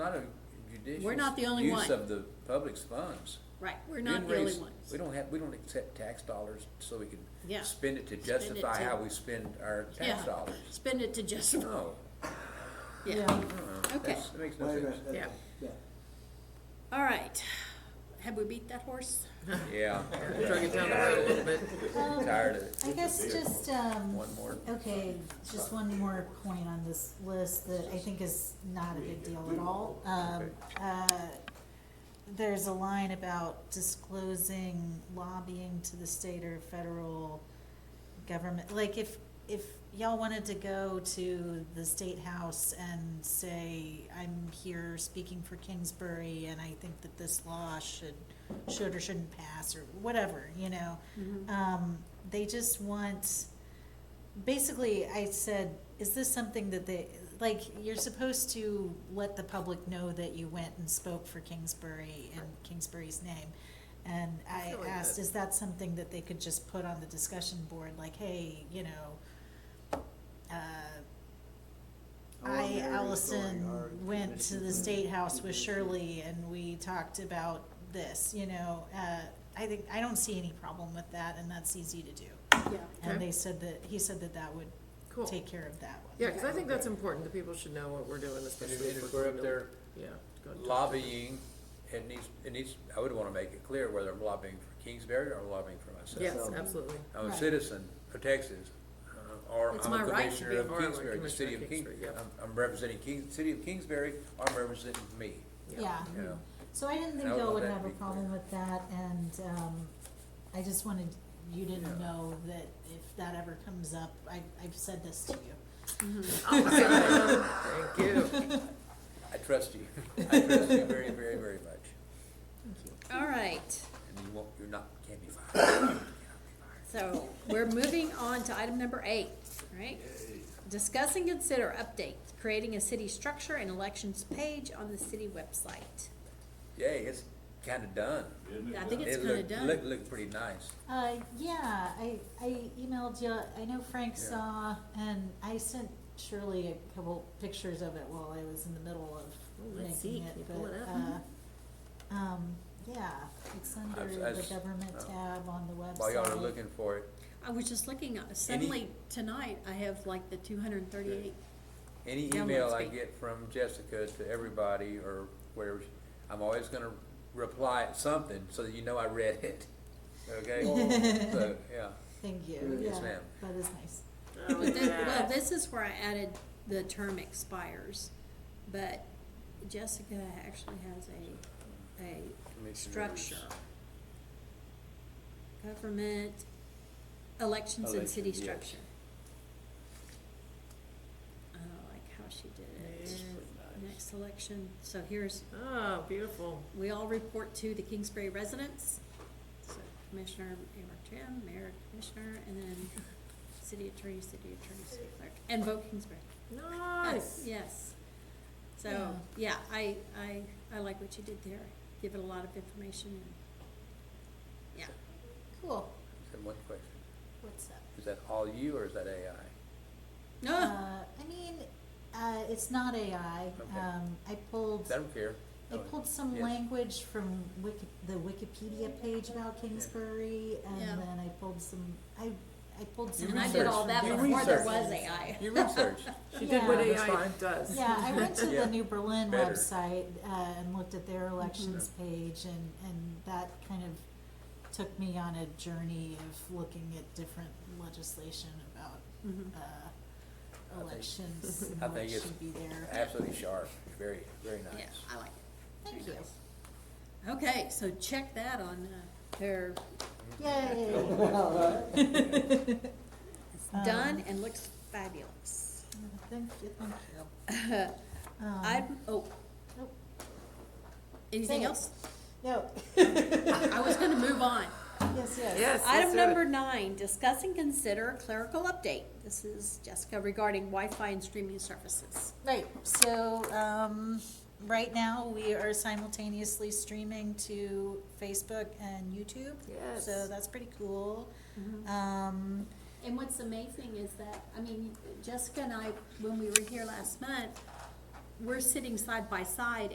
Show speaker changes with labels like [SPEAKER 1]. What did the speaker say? [SPEAKER 1] not a judicious
[SPEAKER 2] We're not the only
[SPEAKER 1] use
[SPEAKER 2] one.
[SPEAKER 1] of the public's funds.
[SPEAKER 2] Right, we're
[SPEAKER 1] Didn't
[SPEAKER 2] not the only
[SPEAKER 1] raise-
[SPEAKER 2] ones.
[SPEAKER 1] We don't have, we don't accept tax dollars so we can
[SPEAKER 2] Yeah.
[SPEAKER 1] spend it to
[SPEAKER 2] it
[SPEAKER 1] justify
[SPEAKER 2] to-
[SPEAKER 1] how we spend our
[SPEAKER 2] Yeah.
[SPEAKER 1] tax dollars.
[SPEAKER 2] Spend it to just,
[SPEAKER 1] No,
[SPEAKER 2] yeah,
[SPEAKER 1] no,
[SPEAKER 2] okay,
[SPEAKER 1] that's, that makes
[SPEAKER 3] Wait
[SPEAKER 1] no
[SPEAKER 3] a
[SPEAKER 1] sense.
[SPEAKER 3] minute, that-
[SPEAKER 2] Yeah.
[SPEAKER 3] yeah.
[SPEAKER 2] all right. Have we beat that horse?
[SPEAKER 1] Yeah,
[SPEAKER 4] Drag it down the road a little bit.
[SPEAKER 5] Um,
[SPEAKER 1] tired of it.
[SPEAKER 5] I guess just, um,
[SPEAKER 1] One more.
[SPEAKER 5] okay, just one more point on this list that I think is not a big deal at all. Um, uh, there's a line about disclosing lobbying to the state or federal government. Like if, if y'all wanted to go to the state house and say, I'm here speaking for Kingsbury and I think that this law should, should or shouldn't pass or whatever, you know?
[SPEAKER 2] Mm-hmm.
[SPEAKER 4] Mm-hmm.
[SPEAKER 2] Uh,
[SPEAKER 5] Um, they just want, basically, I said, is this something that they, like, you're supposed to let the public know that you went and spoke for Kingsbury in Kingsbury's name. And I
[SPEAKER 4] feel like
[SPEAKER 5] asked,
[SPEAKER 4] that-
[SPEAKER 5] is that something that they could just put on the discussion board, like, hey, you know, uh,
[SPEAKER 1] Oh,
[SPEAKER 3] Our Mary
[SPEAKER 5] I,
[SPEAKER 3] Story, our
[SPEAKER 5] Allison, went to
[SPEAKER 3] commission.
[SPEAKER 5] the state house
[SPEAKER 1] Mm-hmm.
[SPEAKER 5] with Shirley and we talked about this, you know, uh, I think, I don't see any problem with that and that's easy to do.
[SPEAKER 2] Yeah.
[SPEAKER 5] And
[SPEAKER 4] Okay.
[SPEAKER 5] they said that, he said that that would
[SPEAKER 4] Cool.
[SPEAKER 5] take care of that one.
[SPEAKER 4] Yeah, because I think that's important, that people should know what we're doing,
[SPEAKER 1] And
[SPEAKER 4] especially
[SPEAKER 1] if- and
[SPEAKER 4] if
[SPEAKER 1] if
[SPEAKER 4] we're
[SPEAKER 1] we're
[SPEAKER 4] going
[SPEAKER 1] up
[SPEAKER 4] to.
[SPEAKER 1] there
[SPEAKER 4] Yeah. go and talk to them.
[SPEAKER 1] lobbying, it needs, it needs, I would wanna make it clear whether I'm lobbying for Kingsbury or lobbying for myself.
[SPEAKER 4] Yes,
[SPEAKER 3] So-
[SPEAKER 4] absolutely.
[SPEAKER 1] I'm a
[SPEAKER 5] Right.
[SPEAKER 1] citizen of Texas, uh, or
[SPEAKER 4] It's
[SPEAKER 1] I'm a
[SPEAKER 4] my right to
[SPEAKER 1] commissioner
[SPEAKER 4] be-
[SPEAKER 1] of
[SPEAKER 4] or I'm a
[SPEAKER 1] Kingsbury, the
[SPEAKER 4] commissioner
[SPEAKER 1] city
[SPEAKER 4] of
[SPEAKER 1] of King,
[SPEAKER 4] Kingsbury, yeah.
[SPEAKER 1] I'm, I'm representing King, city of Kingsbury, or I'm representing me,
[SPEAKER 5] Yeah,
[SPEAKER 1] you know?
[SPEAKER 4] Hmm.
[SPEAKER 5] so I didn't think
[SPEAKER 1] Now,
[SPEAKER 5] y'all would
[SPEAKER 1] that
[SPEAKER 5] have
[SPEAKER 1] be
[SPEAKER 5] a
[SPEAKER 1] clear.
[SPEAKER 5] problem with that and, um, I just wanted you to
[SPEAKER 1] Yeah.
[SPEAKER 5] know that if that ever comes up, I, I've said this to you.
[SPEAKER 4] Awesome. Thank you.
[SPEAKER 1] I trust you, I trust you very, very, very much,
[SPEAKER 2] All right,
[SPEAKER 1] and you won't, you're not, can't be fired.
[SPEAKER 2] so we're moving on to item number eight, right? Discuss and consider update, creating a city structure and elections page on the city website.
[SPEAKER 1] Yay, it's kinda done.
[SPEAKER 2] I think it's
[SPEAKER 1] It
[SPEAKER 2] kinda
[SPEAKER 1] looked, looked,
[SPEAKER 2] done.
[SPEAKER 1] looked pretty nice.
[SPEAKER 5] Uh, yeah, I, I emailed you, I know Frank
[SPEAKER 1] Yeah.
[SPEAKER 5] saw, and I sent Shirley a couple pictures of it while I was in the middle
[SPEAKER 4] Ooh,
[SPEAKER 5] of
[SPEAKER 4] let's see.
[SPEAKER 5] making
[SPEAKER 4] Can you
[SPEAKER 5] it,
[SPEAKER 4] pull
[SPEAKER 5] but,
[SPEAKER 4] it up?
[SPEAKER 5] uh, um, yeah, it's under
[SPEAKER 1] I've-
[SPEAKER 5] the
[SPEAKER 1] I've-
[SPEAKER 5] government
[SPEAKER 1] uh,
[SPEAKER 5] tab on the website.
[SPEAKER 1] While y'all are looking for it,
[SPEAKER 2] I was just looking, uh, suddenly tonight, I have like the two hundred and thirty-eight,
[SPEAKER 1] Any
[SPEAKER 2] Download
[SPEAKER 1] email I
[SPEAKER 2] speed.
[SPEAKER 1] get from Jessica to everybody or wherever, she- I'm always gonna reply at something so that you know I read it, okay? So, yeah,
[SPEAKER 5] Thank you,
[SPEAKER 3] Yes,
[SPEAKER 5] yeah,
[SPEAKER 1] ma'am.
[SPEAKER 5] that is nice.
[SPEAKER 4] Oh,
[SPEAKER 2] but
[SPEAKER 4] look
[SPEAKER 2] then,
[SPEAKER 4] at
[SPEAKER 2] well,
[SPEAKER 4] that.
[SPEAKER 2] this is where I added the term expires. But Jessica actually has a, a structure. Government, elections and city
[SPEAKER 1] Elections, yes.
[SPEAKER 2] structure. I don't like how she did it. Next election, so here's,
[SPEAKER 4] Oh, beautiful.
[SPEAKER 2] we all report to the Kingsbury residents. So Commissioner, Mayor Jim, Mayor Commissioner, and then City Attorney, City Attorney, City Clerk, and vote Kingsbury.
[SPEAKER 4] Nice.
[SPEAKER 2] Yes. So,
[SPEAKER 5] Yeah.
[SPEAKER 2] yeah, I, I, I like what you did there. Give it a lot of information and, yeah.
[SPEAKER 5] Cool,
[SPEAKER 1] And one question,
[SPEAKER 5] what's up?
[SPEAKER 1] is that all you or is that AI?
[SPEAKER 2] No,
[SPEAKER 5] Uh, I mean, uh, it's not AI,
[SPEAKER 1] Okay.
[SPEAKER 5] um, I pulled.
[SPEAKER 1] I don't care.
[SPEAKER 5] I pulled some
[SPEAKER 1] Yes.
[SPEAKER 5] language from Wiki, the Wikipedia page about Kingsbury, and
[SPEAKER 2] Yeah.
[SPEAKER 5] then I pulled some, I, I pulled some.
[SPEAKER 2] and I did all that
[SPEAKER 1] You
[SPEAKER 2] before there
[SPEAKER 1] researched.
[SPEAKER 2] was AI.
[SPEAKER 1] You researched,
[SPEAKER 4] She did what
[SPEAKER 5] Yeah.
[SPEAKER 4] AI does.
[SPEAKER 5] Yeah, I went to
[SPEAKER 1] Yeah.
[SPEAKER 5] the New Berlin
[SPEAKER 1] Better. Mm-hmm.
[SPEAKER 5] website, uh, and looked at their elections page, and, and that kind of took me on a journey of looking at different legislation about,
[SPEAKER 1] Mm-hmm.
[SPEAKER 2] Mhm.
[SPEAKER 5] uh,
[SPEAKER 1] I think-
[SPEAKER 5] elections
[SPEAKER 1] I
[SPEAKER 5] and what
[SPEAKER 1] think it's
[SPEAKER 5] should be there.
[SPEAKER 1] absolutely sharp, very, very
[SPEAKER 2] Yeah,
[SPEAKER 1] nice.
[SPEAKER 2] I like it.
[SPEAKER 5] Thank
[SPEAKER 2] Very
[SPEAKER 5] you.
[SPEAKER 2] nice. Okay, so check that on uh, their,
[SPEAKER 5] Yay.
[SPEAKER 3] All right.
[SPEAKER 1] Mm-hmm.
[SPEAKER 2] it's
[SPEAKER 5] Um,
[SPEAKER 2] done and looks fabulous.
[SPEAKER 5] Thank you, thank you. Um,
[SPEAKER 2] I, oh,
[SPEAKER 5] nope.
[SPEAKER 2] anything
[SPEAKER 5] Say it.
[SPEAKER 2] else?
[SPEAKER 5] No,
[SPEAKER 2] I was gonna move on.
[SPEAKER 5] yes, yes.
[SPEAKER 4] Yes. let's
[SPEAKER 2] Item
[SPEAKER 4] do it.
[SPEAKER 2] number nine, discuss and consider clerical update. This is Jessica regarding Wi-Fi and streaming services.
[SPEAKER 5] Right, so, um, right now, we are simultaneously streaming to Facebook and YouTube.
[SPEAKER 4] Yes. Mm-hmm.
[SPEAKER 5] So that's pretty cool. Um,
[SPEAKER 2] And what's amazing is that, I mean, Jessica and I, when we were here last month, we're sitting side by side